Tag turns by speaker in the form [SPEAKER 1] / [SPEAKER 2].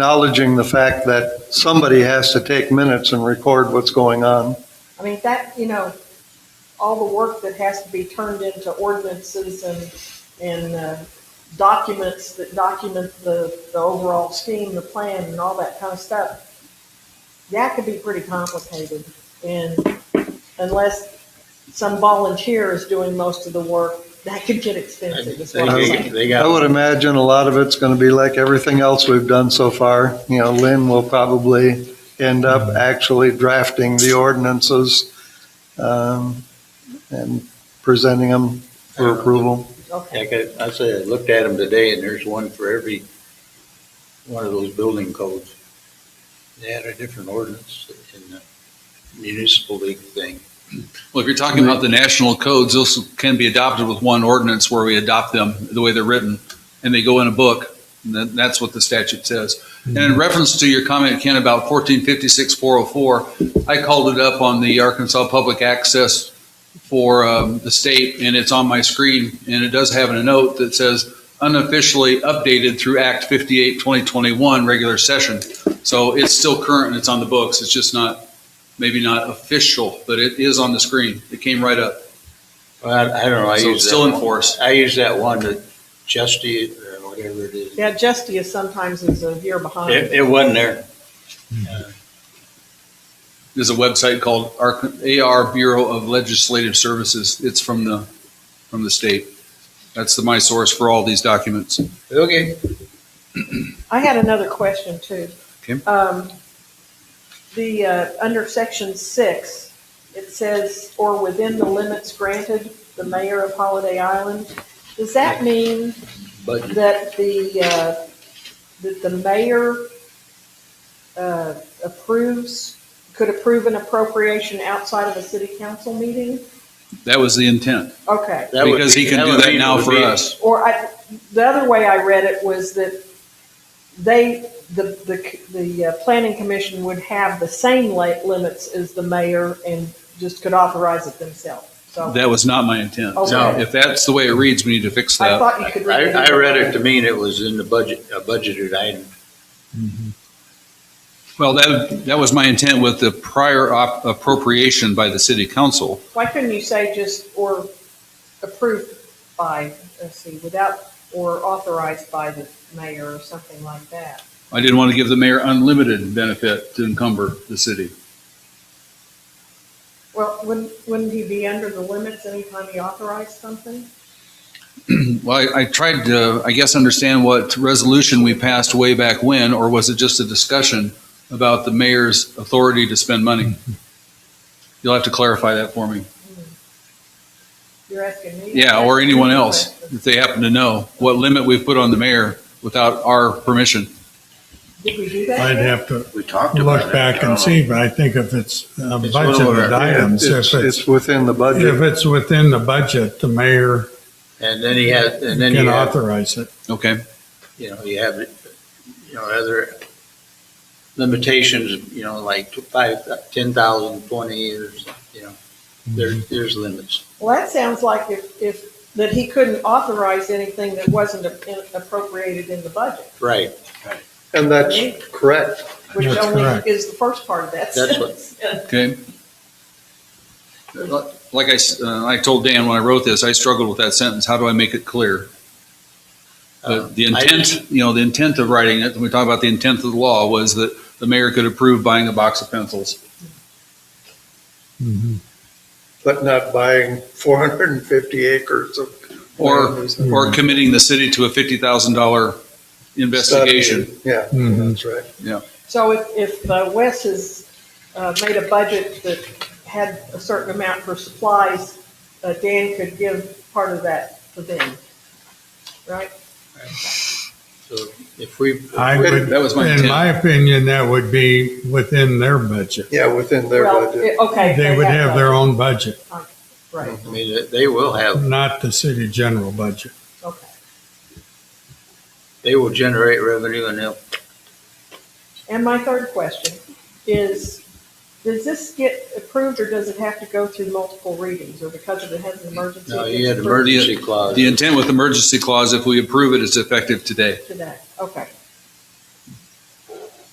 [SPEAKER 1] acknowledging the fact that somebody has to take minutes and record what's going on.
[SPEAKER 2] I mean, that, you know, all the work that has to be turned into ordinances and, and uh, documents that document the, the overall scheme, the plan and all that kind of stuff. That could be pretty complicated and unless some volunteer is doing most of the work, that could get expensive. is what I'm saying.
[SPEAKER 3] They
[SPEAKER 1] I
[SPEAKER 3] got,
[SPEAKER 1] would imagine a lot of it's going to be like everything else we've done so far. You know, Lynn will probably end
[SPEAKER 4] Mm-hmm.
[SPEAKER 1] up actually drafting the ordinances um, and presenting them for approval.
[SPEAKER 2] Okay,
[SPEAKER 3] like I I said, I looked at them today and there's one for every one of those building codes. They had a different ordinance in the municipal league thing.
[SPEAKER 4] Well, if you're talking about the national codes, those can be adopted with one ordinance where we adopt them the way they're written, and they go in a book, and then that's what the statute says. And in reference to your comment, Ken, about 1456404, I called it up on the Arkansas Public Access for um, the state, and it's on my screen, and it does have a note that says unofficially updated through Act 58, 2021, regular session. So it's still current and it's on the books, it's just not maybe not official, but it is on the screen. It came right up.
[SPEAKER 3] Well, I I don't know, I
[SPEAKER 4] So
[SPEAKER 3] use that.
[SPEAKER 4] still in
[SPEAKER 3] one-
[SPEAKER 4] force.
[SPEAKER 3] I use that one that Justy or whatever it is.
[SPEAKER 2] yeah, Justia sometimes is a year behind.
[SPEAKER 3] It, it wasn't there.
[SPEAKER 4] There's a website called AR AR Bureau of Legislative Services. It's from the, from the state. That's the, my source for all these documents.
[SPEAKER 3] Okay.
[SPEAKER 2] I had another question too.
[SPEAKER 4] Okay.
[SPEAKER 2] Um, the, uh, under section six, it says, or within the limits granted, the mayor of Holiday Island. Does that mean
[SPEAKER 3] But
[SPEAKER 2] that the, uh, that the mayor, uh, approves, could approve an appropriation outside of a city council meeting?
[SPEAKER 4] That was the intent.
[SPEAKER 2] Okay.
[SPEAKER 3] that would
[SPEAKER 4] Because
[SPEAKER 3] be-
[SPEAKER 4] he can do
[SPEAKER 3] would
[SPEAKER 4] that
[SPEAKER 3] be-
[SPEAKER 4] now
[SPEAKER 3] would
[SPEAKER 4] for
[SPEAKER 3] be-
[SPEAKER 4] us.
[SPEAKER 2] Or I, the other way I read it was that they, the, the, the uh, planning commission would have the same late limits as the mayor and just could authorize it themselves. So
[SPEAKER 4] That was not my intent.
[SPEAKER 2] No.
[SPEAKER 4] If that's the way it reads, we need to fix
[SPEAKER 2] I
[SPEAKER 4] that.
[SPEAKER 2] thought you could read
[SPEAKER 3] I,
[SPEAKER 2] it.
[SPEAKER 3] I read it to mean it was in the budget, a budgeted item.
[SPEAKER 4] Well, that, that was my intent with the prior op- appropriation by the city council.
[SPEAKER 2] Why couldn't you say just, or approved by, let's see, without, or authorized by the mayor or something like that?
[SPEAKER 4] I didn't want to give the mayor unlimited benefit to encumber the city.
[SPEAKER 2] Well, wouldn't, wouldn't he be under the limits anytime he authorized something?
[SPEAKER 4] Well, I, I tried to, I guess, understand what resolution we passed way back when, or was it just a discussion about the mayor's authority to spend money? You'll have to clarify that for me.
[SPEAKER 2] You're asking me?
[SPEAKER 4] Yeah, or anyone else, if they happen to know what limit we've put on the mayor without our permission.
[SPEAKER 2] Did we do that?
[SPEAKER 5] I'd
[SPEAKER 2] yet?
[SPEAKER 5] have to
[SPEAKER 3] We talked about it.
[SPEAKER 5] look back and see, but I think if it's a
[SPEAKER 3] It's
[SPEAKER 5] budgeted
[SPEAKER 3] lower.
[SPEAKER 5] items,
[SPEAKER 1] It's,
[SPEAKER 5] if it's,
[SPEAKER 1] it's within the
[SPEAKER 5] if
[SPEAKER 1] budget.
[SPEAKER 5] it's within the budget, the mayor
[SPEAKER 3] And then he had, and then you
[SPEAKER 5] can
[SPEAKER 3] have,
[SPEAKER 5] authorize it.
[SPEAKER 4] Okay,
[SPEAKER 3] you know, you have, you know, other limitations, you know, like five, ten thousand, twenty, there's, you know, there, there's limits.
[SPEAKER 2] Well, that sounds like if, if, that he couldn't authorize anything that wasn't a- appropriated in the budget,
[SPEAKER 3] Right.
[SPEAKER 1] And that's correct.
[SPEAKER 2] which
[SPEAKER 5] That's correct.
[SPEAKER 2] only is the first part of that
[SPEAKER 3] That's what-
[SPEAKER 2] sentence.
[SPEAKER 4] okay. Like I, s- uh, I told Dan when I wrote this, I struggled with that sentence. How do I make it clear?
[SPEAKER 3] Uh,
[SPEAKER 4] But the
[SPEAKER 3] I-
[SPEAKER 4] intent, you know, the intent of writing it, when we talk about the intent of the law, was that the mayor could approve buying a box of pencils.
[SPEAKER 1] But not buying 450 acres of.
[SPEAKER 4] Or, or committing the city to a fifty thousand dollar investigation. Mm-hmm.
[SPEAKER 1] Yeah,
[SPEAKER 5] Mhm.
[SPEAKER 1] that's right.
[SPEAKER 2] So if, if uh, Wes has, uh, made a budget that had a certain amount for supplies, uh, Dan could give part of that to them, right?
[SPEAKER 3] So if we,
[SPEAKER 5] I would,
[SPEAKER 4] That was my
[SPEAKER 5] in
[SPEAKER 4] intent.
[SPEAKER 5] my opinion, that would be within their budget.
[SPEAKER 1] Yeah, within their
[SPEAKER 2] Well,
[SPEAKER 1] budget.
[SPEAKER 2] it- Okay.
[SPEAKER 5] They would have their own budget,
[SPEAKER 2] Right,
[SPEAKER 3] I mean, they will have,
[SPEAKER 5] not the city general budget.
[SPEAKER 2] okay.
[SPEAKER 3] they will generate revenue and they'll,
[SPEAKER 2] And my third question is, does this get approved or does it have to go through multiple readings or because of it has an emergency?
[SPEAKER 3] no,
[SPEAKER 2] it
[SPEAKER 3] you
[SPEAKER 2] gets
[SPEAKER 3] had
[SPEAKER 2] approved
[SPEAKER 3] emergency clause.
[SPEAKER 4] The intent with emergency clause, if we approve it, it's effective today.
[SPEAKER 2] Today, okay.